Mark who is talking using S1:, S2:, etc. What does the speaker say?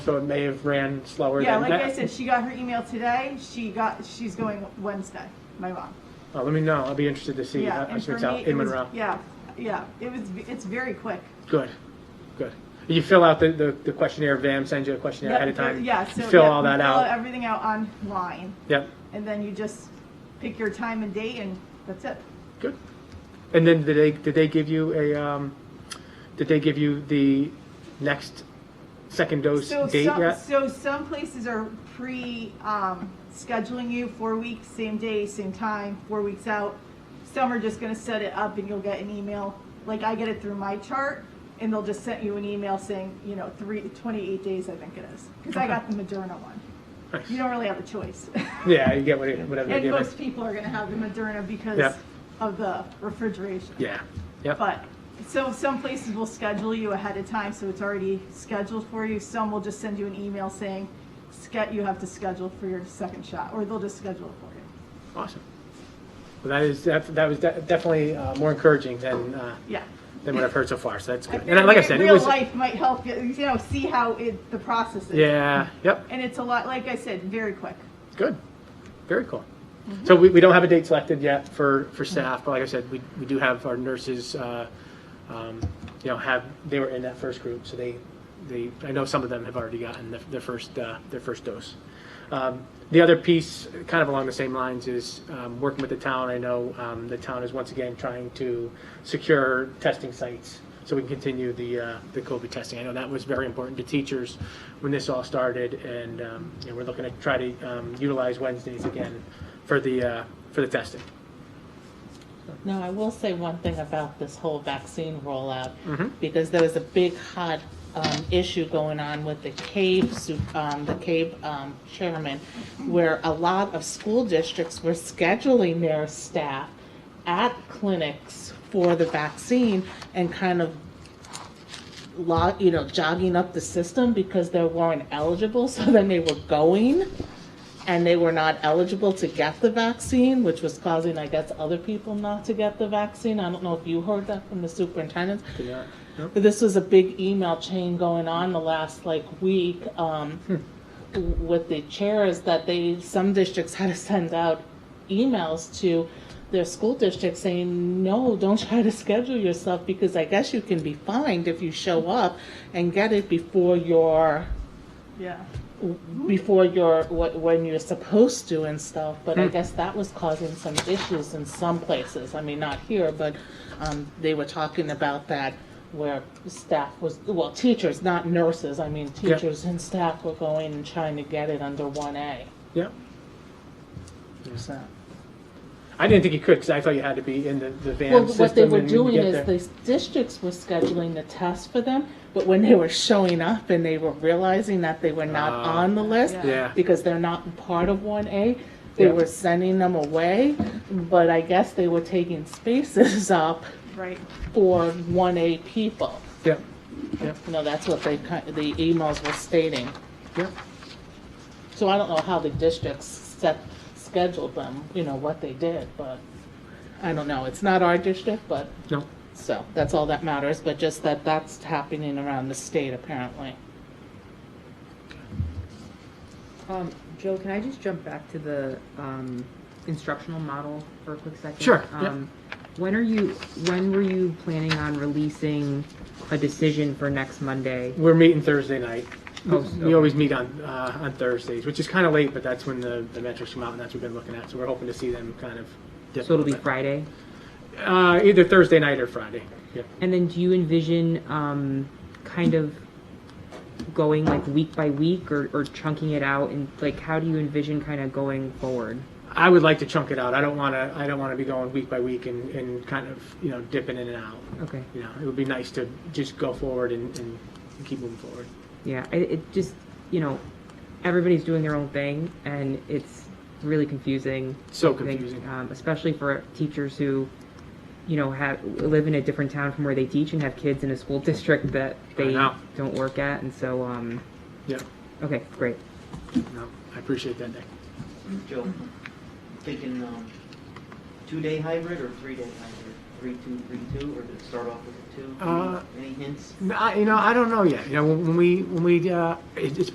S1: So it may have ran slower
S2: Yeah,
S1: than
S2: like
S1: that.
S2: I said, she got her email today. She got, she's going Wednesday, my mom.
S1: Oh, let me know. I'll be interested to see
S2: Yeah,
S1: how
S2: and
S1: it
S2: for
S1: turns
S2: me,
S1: out
S2: it
S1: in
S2: was,
S1: Monroe.
S2: yeah, yeah, it was, it's very quick.
S1: Good, good. You fill out the, the, the questionnaire. VAM sends you a questionnaire ahead of
S2: Yeah,
S1: time.
S2: Yeah,
S1: You
S2: so.
S1: fill
S2: yeah,
S1: all
S2: you
S1: that
S2: fill
S1: out.
S2: Everything out online,
S1: Yep.
S2: and then you just pick your time and date, and that's it.
S1: Good. And then did they did they give you a um, did they give you the next second dose
S2: So
S1: date
S2: some-
S1: yet?
S2: So some places are pre, um, scheduling you four weeks, same day, same time, four weeks out. Some are just gonna set it up and you'll get an email, like I get it through my chart, and they'll just send you an email saying, you know, three, twenty-eight days, I think it is. Cause I got the Moderna one.
S1: Nice.
S2: You don't really have a choice.
S1: Yeah, you get what it- whatever they
S2: And
S1: give
S2: most
S1: us.
S2: people are gonna have the Moderna because
S1: Yep.
S2: of the refrigeration.
S1: Yeah. Yep.
S2: But, so some places will schedule you ahead of time, so it's already scheduled for you. Some will just send you an email saying, "Ske- you have to schedule for your second shot, or they'll just schedule it for you.
S1: Awesome. Well, that is that, that was de- definitely uh, more encouraging than uh,
S2: Yeah.
S1: than what I've heard so far. So that's good.
S2: I
S1: And I- like I
S2: figured
S1: said, it
S2: real
S1: was
S2: life might help you, you know, see how it, the process is.
S1: yeah. Yep.
S2: And it's a lot, like I said, very quick.
S1: Good. Very cool. So we, we don't have a date selected yet for, for staff, but like I said, we, we do have our nurses, uh, um, you know, have, they were in that first group, so they, they, I know some of them have already gotten their, their first, uh, their first dose. Um, the other piece, kind of along the same lines, is, um, working with the town, I know, um, the town is once again trying to secure testing sites so we can continue the, uh, the COVID testing. I know that was very important to teachers when this all started, and, um, you know, we're looking to try to, um, utilize Wednesdays again for the, uh, for the testing.
S3: Now, I will say one thing about this whole vaccine rollout,
S1: Mhm.
S3: because there was a big hot um, issue going on with the CAVE, su- um, the CAVE um, chairman, where a lot of school districts were scheduling their staff at clinics for the vaccine and kind of lo you know, jogging up the system because they weren't eligible, so then they were going and they were not eligible to get the vaccine, which was causing, I guess, other people not to get the vaccine. I don't know if you heard that from the superintendent.
S1: Did not- no?
S3: But this was a big email chain going on the last like week um, w- with the chairs that they, some districts had to send out emails to their school district saying, no, don't try to schedule yourself because I guess you can be fined if you show up and get it before your
S2: Yeah.
S3: before your wh- when you're supposed to and stuff but
S1: Hmm.
S3: i guess that was causing some issues in some places i mean not here but um, they were talking about that where staff was well teachers not nurses i mean
S1: Yeah.
S3: teachers and staff were going and trying to get it under 1a
S1: Yeah.
S3: so
S1: I didn't think you could, because I thought you had to be in the, the van
S3: well
S1: system.
S3: what they were
S1: and you
S3: doing
S1: get
S3: is
S1: there.
S3: the districts were scheduling the test for them but when they were showing up and they were realizing that they were not
S1: Ah.
S3: on the list
S2: Yeah.
S1: Yeah.
S3: because they're not part of one A. They
S1: Yeah.
S3: were sending them away, but I guess they were taking spaces up
S2: Right.
S3: for one A people.
S1: Yeah,
S3: You know, that's what they, ki- the emails were stating.
S1: yeah.
S3: So I don't know how the districts set, scheduled them, you know, what they did, but I don't know. It's not our district, but,
S1: No,
S3: so, that's all that matters, but just that that's happening around the state apparently.
S4: Um, Joe, can I just jump back to the, um, instructional model for a quick second?
S1: Sure, yeah.
S4: Um, When are you, when were you planning on releasing a decision for next Monday?
S1: we're meeting Thursday night.
S4: Oh,
S1: We
S4: okay.
S1: always meet on, uh, on Thursdays, which is kind of late, but that's when the, the metrics come out, and that's what we've been looking at, so we're hoping to see them kind of. dip
S4: So it'll
S1: a
S4: be
S1: little
S4: Friday?
S1: bit. Uh, either Thursday night or Friday, yeah.
S4: And then do you envision, um, kind of going like week by week or, or chunking it out? And like, how do you envision kind of going forward?
S1: I would like to chunk it out, I don't want to, I don't want to be going week by week and, and kind of, you know, dipping in and out.
S4: Okay.
S1: You know, it would be nice to just go forward and, and keep moving forward.
S4: Yeah, it, it just, you know, everybody's doing their own thing and it's really confusing.
S1: So
S4: I think,
S1: confusing.
S4: um, especially for teachers who, you know, have live in a different town from where they teach and have kids in a school district that they
S1: know.
S4: don't work at. And so, um,
S1: Yeah,
S4: okay, great.
S1: no, I appreciate that, Nick.
S5: Joe, thinking um, two-day hybrid or three-day hybrid? Three, two, three, two, or did it start off with a two?
S1: Uh,
S5: Any- Any hints?
S1: No, I- you know, I don't know yet. You know, when when we, when we, uh, it- it's